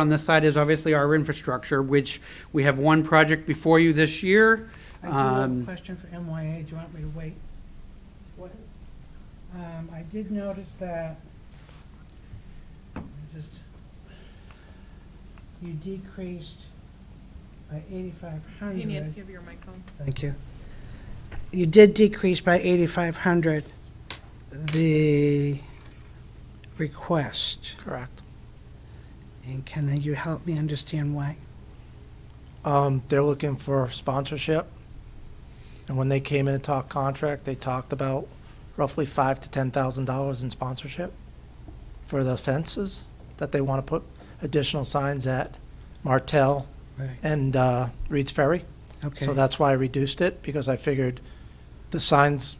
on this side is obviously our infrastructure, which we have one project before you this year. I do have a Um, question for MYA, do you want me to wait? What? Um, I did notice that, I just, you decreased by eighty-five You need to hundred. give your microphone. Thank you. You did decrease by eighty-five hundred the request, Correct. and can you help me understand why? Um, they're looking for sponsorship. And when they came in and talked contract, they talked about roughly five to ten thousand dollars in sponsorship for the fences that they want to put additional signs at Martell Right. and uh, Reed's Ferry. Okay. So that's why I reduced it because I figured the signs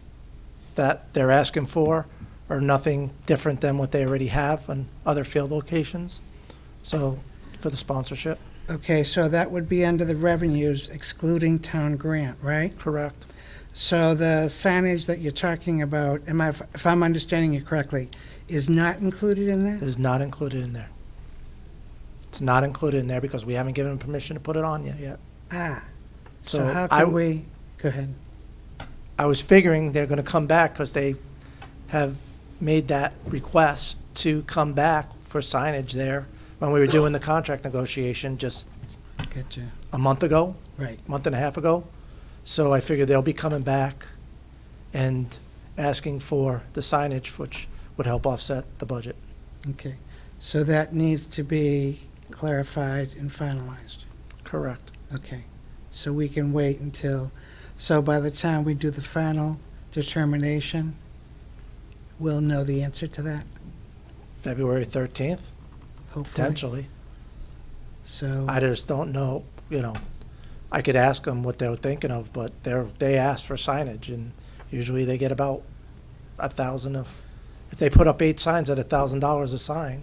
that they're asking for are nothing different than what they already have on other field locations. So for the sponsorship, Okay, so that would be under the revenues excluding town grant, right? correct? So the signage that you're talking about, am I, if I'm understanding you correctly, is not included in that? is not included in there. It's not included in there because we haven't given them permission to put it on yet. yet. Ah, so So how I- can we, go ahead. I was figuring they're gonna come back because they have made that request to come back for signage there when we were doing the contract negotiation just Gotcha. a month ago, Right, month and a half ago. So I figured they'll be coming back and asking for the signage, which would help offset the budget. okay. So that needs to be clarified and finalized. Correct. Okay, so we can wait until, so by the time we do the final determination, we'll know the answer to that, February thirteenth, hopefully. potentially. So. I just don't know, you know, I could ask them what they were thinking of, but they're, they asked for signage, and usually they get about a thousand of, if they put up eight signs at a thousand dollars a sign,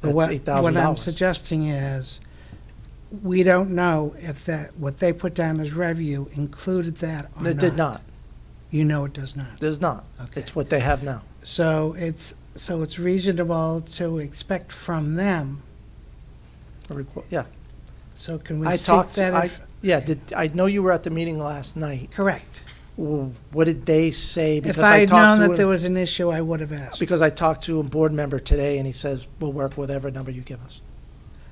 But that's what- eight thousand What I'm dollars. suggesting is, we don't know if that, what they put down as revenue included that or not. It did not, You know it does not. does not. Okay. It's what they have now, So it's, so it's reasonable to expect from them, a requ- yeah. so can we I seek talked, to- that I, if? yeah, did, I know you were at the meeting last night. Correct. W- What did they say? Because If I had talked known to that a- there was an issue, I would have asked. Because I talked to a board member today, and he says, we'll work whatever number you give us.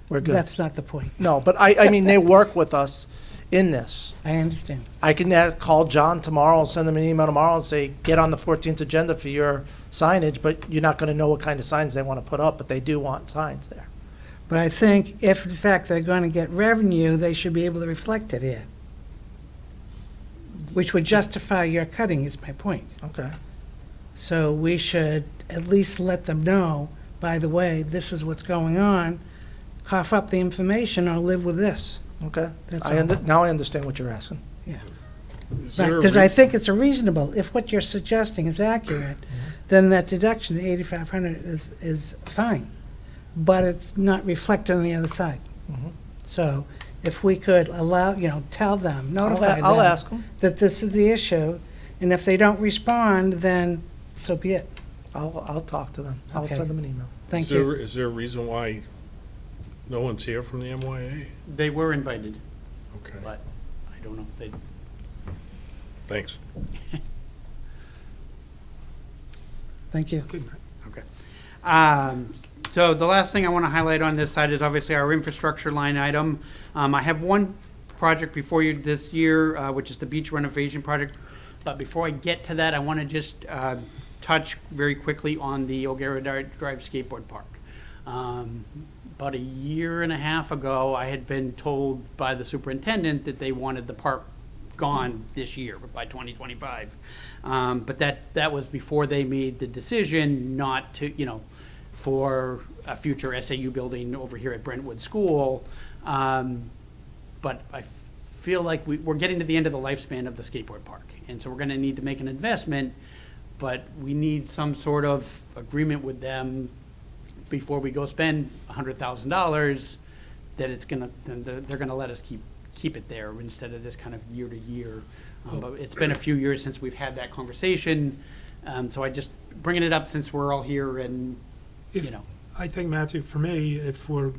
We're good. That's not the point. No, but I, I mean, they work with us in this. I understand. I can uh, call John tomorrow, and send them an email tomorrow and say, get on the fourteenth agenda for your signage, but you're not gonna know what kind of signs they wanna put up, but they do want signs there. But I think if in fact they're going to get revenue, they should be able to reflect it here. Which would justify your cutting is my point. Okay. So we should at least let them know, by the way, this is what's going on. Cough up the information or live with this. Okay. That's I, all. under- now I understand what you're asking. Is there a Because I rea- think it's a reasonable, if what you're suggesting is accurate, Mm-hmm. then that deduction, eighty-five hundred, is, is fine. But it's not reflected on the other side. Mm-hmm. Mhm. So if we could allow, you know, tell them, I'll, notify a- I'll them ask them. that this is the issue, and if they don't respond, then so be it. I'll, I'll talk to them. I'll Okay. send them an email. Thank is there- you. Is there a reason why no one's here from the MYA? They were invited, Okay, but I don't know. They- thanks. Thank you. Um, So the last thing I want to highlight on this side is obviously our infrastructure line item. Um, I have one project before you this year, uh, which is the beach renovation project. But before I get to that, I want to just uh, touch very quickly on the O'Gara Di- Drive Skateboard Park. Um, About a year and a half ago, I had been told by the superintendent that they wanted the park gone this year by 2025. Um, But that, that was before they made the decision not to, you know, for a future SAU building over here at Brentwood School. Um, But I f- feel like we, we're getting to the end of the lifespan of the skateboard park. And so we're going to need to make an investment, but we need some sort of agreement with them before we go spend $100,000 that it's gonna, then they're they're gonna let us keep, keep it there instead of this kind of year to year. Um, But it's been a few years since we've had that conversation, um, so I just bringing it up since we're all here and, you If- know. I think, Matthew, for me, if we're